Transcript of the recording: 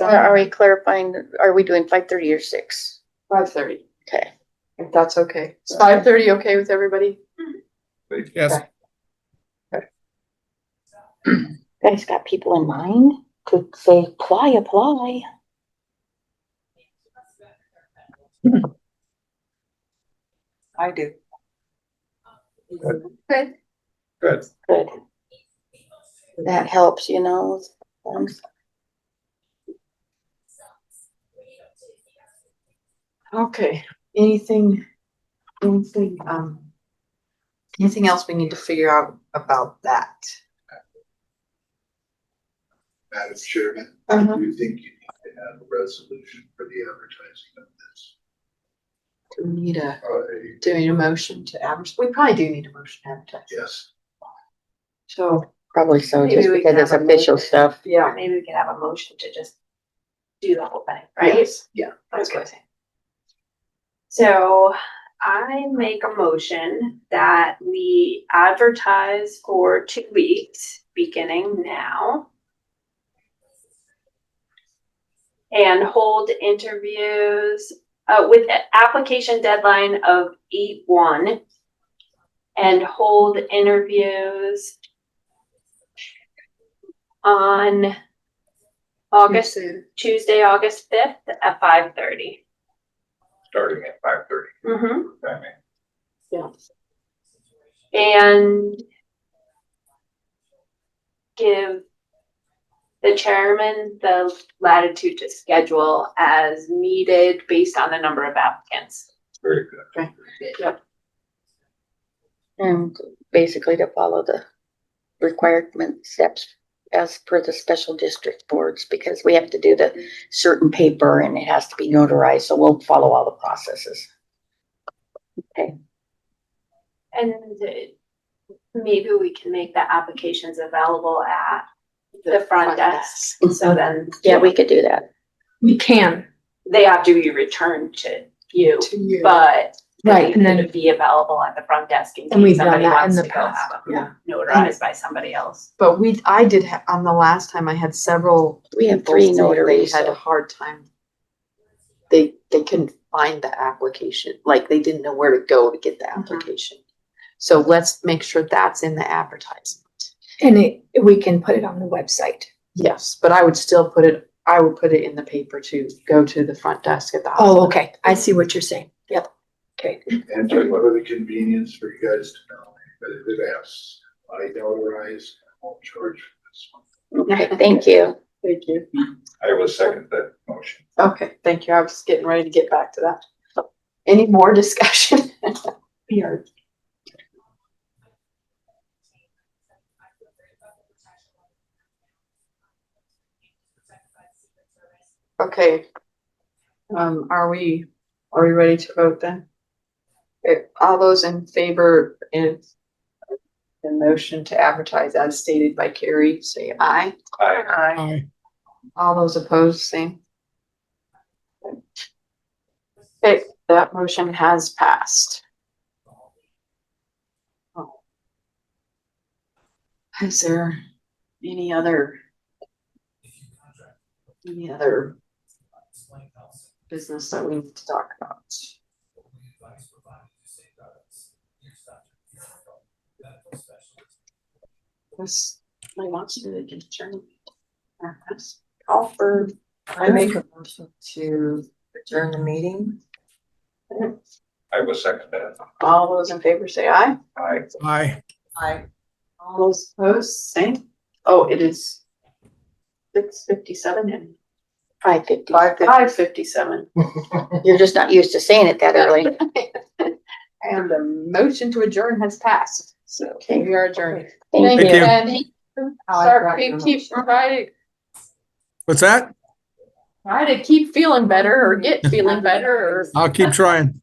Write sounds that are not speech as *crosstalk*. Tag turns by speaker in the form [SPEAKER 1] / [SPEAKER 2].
[SPEAKER 1] Are are we
[SPEAKER 2] some,
[SPEAKER 1] clarifying, are we doing five thirty or six?
[SPEAKER 2] five thirty,
[SPEAKER 1] Okay,
[SPEAKER 2] if that's okay. Is five thirty okay with everybody?
[SPEAKER 3] Yes,
[SPEAKER 4] Guys got people in mind to say, apply, apply.
[SPEAKER 5] I do.
[SPEAKER 2] Okay.
[SPEAKER 3] good.
[SPEAKER 4] Good.
[SPEAKER 1] that helps, you know. um,
[SPEAKER 2] Okay, anything, anything, um, anything else we need to figure out about that?
[SPEAKER 6] Madam Chairman,
[SPEAKER 2] Uh-huh.
[SPEAKER 6] do you think you need to have a resolution for the advertising of this?
[SPEAKER 2] Do we need a,
[SPEAKER 6] Uh,
[SPEAKER 2] do we need a motion to advertise? We probably do need a motion to advertise.
[SPEAKER 6] yes,
[SPEAKER 2] So,
[SPEAKER 1] Probably so,
[SPEAKER 5] Maybe
[SPEAKER 1] just
[SPEAKER 5] we
[SPEAKER 1] because
[SPEAKER 5] can
[SPEAKER 1] it's
[SPEAKER 5] have a
[SPEAKER 1] official
[SPEAKER 5] meeting.
[SPEAKER 1] stuff.
[SPEAKER 2] yeah.
[SPEAKER 5] Maybe we could have a motion to just do the whole thing, right?
[SPEAKER 2] Yes, yeah,
[SPEAKER 5] That's
[SPEAKER 2] okay.
[SPEAKER 5] what I'm saying. So I make a motion that we advertise for two weeks, beginning now. And hold interviews, uh, with a- application deadline of eight one. And hold interviews on August
[SPEAKER 2] Understood.
[SPEAKER 5] Tuesday, August fifth at five thirty.
[SPEAKER 6] starting at five thirty,
[SPEAKER 5] Mm-hmm.
[SPEAKER 6] I mean.
[SPEAKER 2] Yeah.
[SPEAKER 5] And give the chairman the latitude to schedule as needed based on the number of applicants.
[SPEAKER 6] Very good.
[SPEAKER 1] And basically to follow the requirement steps as per the special district boards, because we have to do the certain paper and it has to be notarized, so we'll follow all the processes.
[SPEAKER 5] And uh, maybe we can make the applications available at the front desk. So then
[SPEAKER 1] Yeah, we could do that.
[SPEAKER 7] We can,
[SPEAKER 5] they have to be returned to you,
[SPEAKER 2] To you.
[SPEAKER 5] but
[SPEAKER 7] right, and then,
[SPEAKER 5] it'd be available at the front desk in
[SPEAKER 7] And we've
[SPEAKER 5] case
[SPEAKER 7] done
[SPEAKER 5] somebody
[SPEAKER 7] that in
[SPEAKER 5] wants
[SPEAKER 7] the
[SPEAKER 5] to go
[SPEAKER 7] past,
[SPEAKER 5] have
[SPEAKER 2] yeah.
[SPEAKER 5] them notarized by somebody else.
[SPEAKER 2] But we, I did, ha- on the last time, I had several.
[SPEAKER 1] We have
[SPEAKER 2] people
[SPEAKER 1] three
[SPEAKER 2] say
[SPEAKER 1] notaries,
[SPEAKER 2] They had a
[SPEAKER 1] so-
[SPEAKER 2] hard time. They, they couldn't find the application, like they didn't know where to go to get the
[SPEAKER 5] Mhm.
[SPEAKER 2] application. So let's make sure that's in the advertisement.
[SPEAKER 7] and it, we can put it on the website.
[SPEAKER 2] Yes, but I would still put it, I would put it in the paper to go to the front desk at the hospital.
[SPEAKER 7] Oh, okay, I see what you're saying, yep, okay.
[SPEAKER 6] And just for the convenience for you guys to know, that if it asks, I notarize, I won't charge for this one.
[SPEAKER 1] Okay, thank you.
[SPEAKER 2] Thank you.
[SPEAKER 6] I will second that motion.
[SPEAKER 2] Okay, thank you. I was getting ready to get back to that. Any more discussion? *laughs* We are. Okay. Um, are we, are we ready to vote then? Okay, all those in favor in the motion to advertise as stated by Carrie, say aye.
[SPEAKER 6] Aye.
[SPEAKER 3] Aye.
[SPEAKER 2] All those opposed, same. Okay, that motion has passed. Oh. Is there any other? Any other? Business that we need to talk about? This, I want you to get adjourned. Call for,
[SPEAKER 8] I make a motion to adjourn the meeting.
[SPEAKER 6] I will second that.
[SPEAKER 2] all those in favor say aye.
[SPEAKER 6] Aye.
[SPEAKER 3] Aye.
[SPEAKER 8] I
[SPEAKER 2] All those opposed, same. Oh, it is six fifty-seven and
[SPEAKER 1] Five fifty.
[SPEAKER 2] five fifty-seven.
[SPEAKER 1] You're just not used to saying it that early.
[SPEAKER 2] And the motion to adjourn has passed, so we are adjourned.
[SPEAKER 1] Thank
[SPEAKER 3] you. you.
[SPEAKER 8] I forgot
[SPEAKER 2] Sorry,
[SPEAKER 8] your
[SPEAKER 2] keep,
[SPEAKER 8] motion.
[SPEAKER 2] try to,
[SPEAKER 3] What's that?
[SPEAKER 2] try to keep feeling better or get feeling better or
[SPEAKER 3] I'll keep trying.